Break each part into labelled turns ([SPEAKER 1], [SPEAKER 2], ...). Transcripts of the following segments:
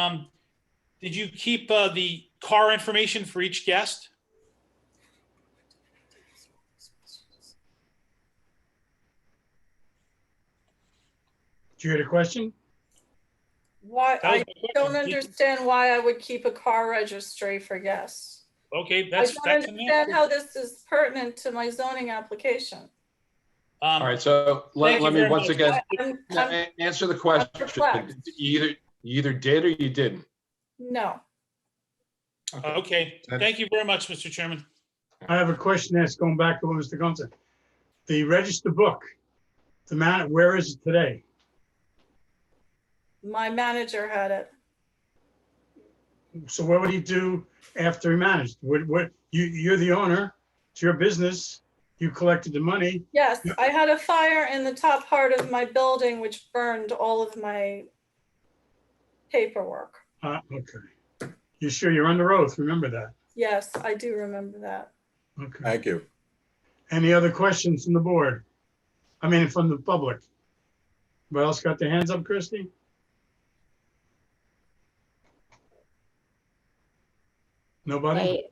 [SPEAKER 1] Um, did you keep uh, the car information for each guest?
[SPEAKER 2] Did you hear the question?
[SPEAKER 3] Why,
[SPEAKER 1] That was
[SPEAKER 3] I
[SPEAKER 1] my
[SPEAKER 3] don't
[SPEAKER 1] question. Did you-
[SPEAKER 3] understand why I would keep a car registry for guests.
[SPEAKER 1] Okay,
[SPEAKER 3] I
[SPEAKER 1] that's,
[SPEAKER 3] don't
[SPEAKER 1] that's an
[SPEAKER 3] understand
[SPEAKER 1] answer.
[SPEAKER 3] how this is pertinent to my zoning application.
[SPEAKER 1] Um,
[SPEAKER 4] All right, so
[SPEAKER 1] Thank
[SPEAKER 4] let,
[SPEAKER 1] you
[SPEAKER 4] let me
[SPEAKER 1] very
[SPEAKER 4] once
[SPEAKER 1] much.
[SPEAKER 4] again,
[SPEAKER 3] I'm- I'm-
[SPEAKER 4] a- answer the question.
[SPEAKER 3] perplexed.
[SPEAKER 4] You either, you either did or you didn't.
[SPEAKER 3] No,
[SPEAKER 1] Okay, thank you very much, Mr. Chairman.
[SPEAKER 2] I have a question that's going back to what Mr. Gonzalez. The register book, the man, where is it today?
[SPEAKER 3] my manager had it.
[SPEAKER 2] So what would he do after he managed? What, what, you, you're the owner, it's your business, you collected the money.
[SPEAKER 3] Yes, I had a fire in the top part of my building which burned all of my paperwork.
[SPEAKER 2] Uh, okay. You sure you're under oath? Remember that.
[SPEAKER 3] Yes, I do remember that.
[SPEAKER 2] Okay.
[SPEAKER 5] Thank you.
[SPEAKER 2] Any other questions from the board? I mean, from the public? Anybody else got their hands up, Christie? Nobody?
[SPEAKER 6] Okay,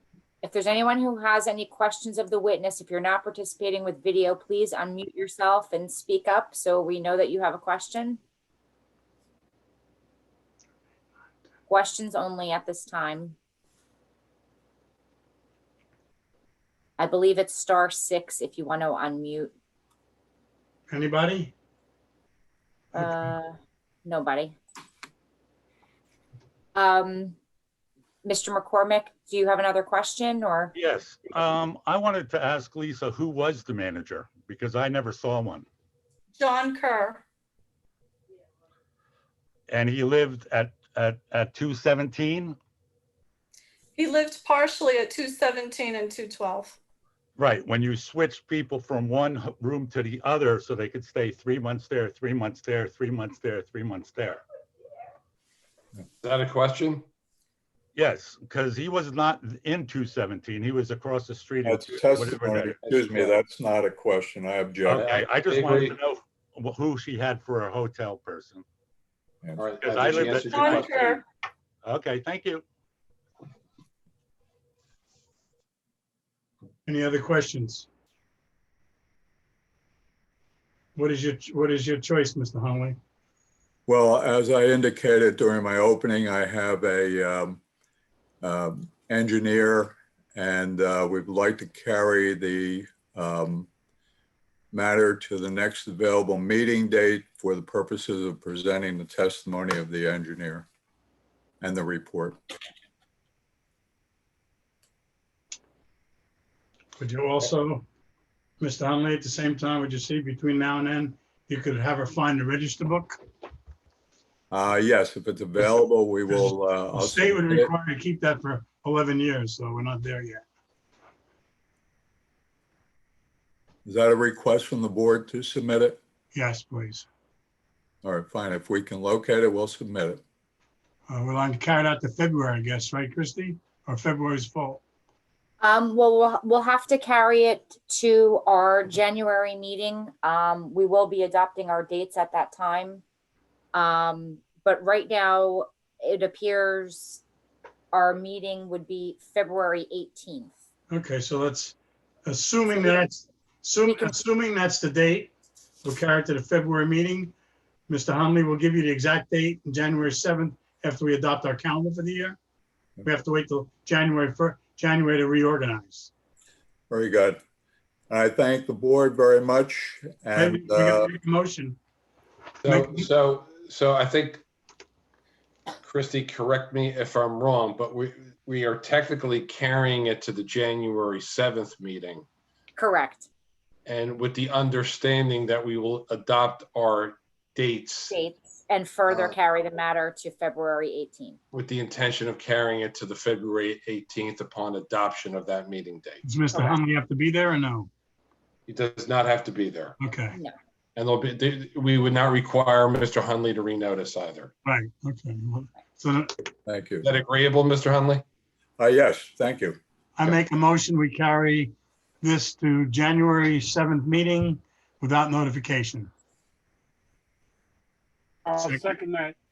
[SPEAKER 6] If there's anyone who has any questions of the witness, if you're not participating with video, please unmute yourself and speak up so we know that you have a question. Questions only at this time. I believe it's star six if you want to unmute.
[SPEAKER 2] Anybody? Okay.
[SPEAKER 6] Uh, nobody. Um, Mr. McCormick, do you have another question or?
[SPEAKER 7] Yes, um, I wanted to ask Lisa, who was the manager? Because I never saw one.
[SPEAKER 3] John Kerr,
[SPEAKER 7] And he lived at, at, at two seventeen?
[SPEAKER 3] he lived partially at 217 and 212.
[SPEAKER 7] Right, when you switch people from one h- room to the other so they could stay three months there, three months there, three months there, three months there.
[SPEAKER 4] Is that a question?
[SPEAKER 7] Yes, because he was not in two seventeen. He was across the street. in
[SPEAKER 5] That's
[SPEAKER 7] two- whatever
[SPEAKER 5] testimony.
[SPEAKER 7] that-
[SPEAKER 5] Excuse me, that's not a question. I object.
[SPEAKER 7] Okay, I just wanted to
[SPEAKER 4] Basically-
[SPEAKER 7] know wh- who she had for a hotel person.
[SPEAKER 4] All right.
[SPEAKER 7] Because
[SPEAKER 4] I
[SPEAKER 7] I
[SPEAKER 4] think she
[SPEAKER 7] lived
[SPEAKER 4] answered
[SPEAKER 7] at-
[SPEAKER 4] your
[SPEAKER 3] John
[SPEAKER 4] question.
[SPEAKER 3] Kerr.
[SPEAKER 7] Okay, thank you.
[SPEAKER 2] Any other questions? What is your, what is your choice, Mr. Hunley?
[SPEAKER 5] Well, as I indicated during my opening, I have a um, um, engineer and uh, we'd like to carry the um, matter to the next available meeting date for the purposes of presenting the testimony of the engineer and the report.
[SPEAKER 2] Would you also, Mr. Hunley, at the same time, would you see between now and then, you could have her find the register book?
[SPEAKER 5] Uh, Yes, if it's available, we will. uh,
[SPEAKER 2] The
[SPEAKER 5] I'll
[SPEAKER 2] state would
[SPEAKER 5] submit it.
[SPEAKER 2] require to keep that for 11 years, so we're not there yet.
[SPEAKER 5] Is that a request from the board to submit it?
[SPEAKER 2] Yes, please.
[SPEAKER 5] All right, fine. If we can locate it, we'll submit it.
[SPEAKER 2] Uh, We'll have to carry it out to February, I guess, right, Christie? Or February's full?
[SPEAKER 6] Um, well, we'll, we'll have to carry it to our January meeting. Um, we will be adopting our dates at that time. Um, but right now, it appears our meeting would be February eighteenth.
[SPEAKER 2] Okay, so let's, assuming that's, assuming, assuming that's the date, we'll carry it to the February meeting. Mr. Hunley will give you the exact date, January 7th, after we adopt our calendar for the year. We have to wait till January 1st, January to reorganize.
[SPEAKER 5] Very good. I thank the board very much
[SPEAKER 2] Maybe we
[SPEAKER 5] and,
[SPEAKER 2] gotta
[SPEAKER 5] uh,
[SPEAKER 2] make a Motion,
[SPEAKER 4] So,
[SPEAKER 2] Make-
[SPEAKER 4] so, so I think, Christy, correct me if I'm wrong, but we, we are technically carrying it to the January 7th meeting.
[SPEAKER 6] Correct,
[SPEAKER 4] And with the understanding that we will adopt our dates
[SPEAKER 6] dates, and further
[SPEAKER 4] Uh,
[SPEAKER 6] carry the matter to February eighteenth.
[SPEAKER 4] with the intention of carrying it to the February 18th upon adoption of that meeting date.
[SPEAKER 2] does Mr.
[SPEAKER 6] Correct.
[SPEAKER 2] Hunley have to be there or no?
[SPEAKER 4] He does not have to be there.
[SPEAKER 2] Okay,
[SPEAKER 4] And there'll be, they- we would not require Mr. Hunley to renotice either.
[SPEAKER 2] right, okay. Well, So
[SPEAKER 5] thank you.
[SPEAKER 4] Is that agreeable, Mr. Hunley?
[SPEAKER 5] Uh, Yes, thank you.
[SPEAKER 2] I make a motion, we carry this to January 7th meeting without notification.
[SPEAKER 8] I'll
[SPEAKER 2] Second.
[SPEAKER 8] second that.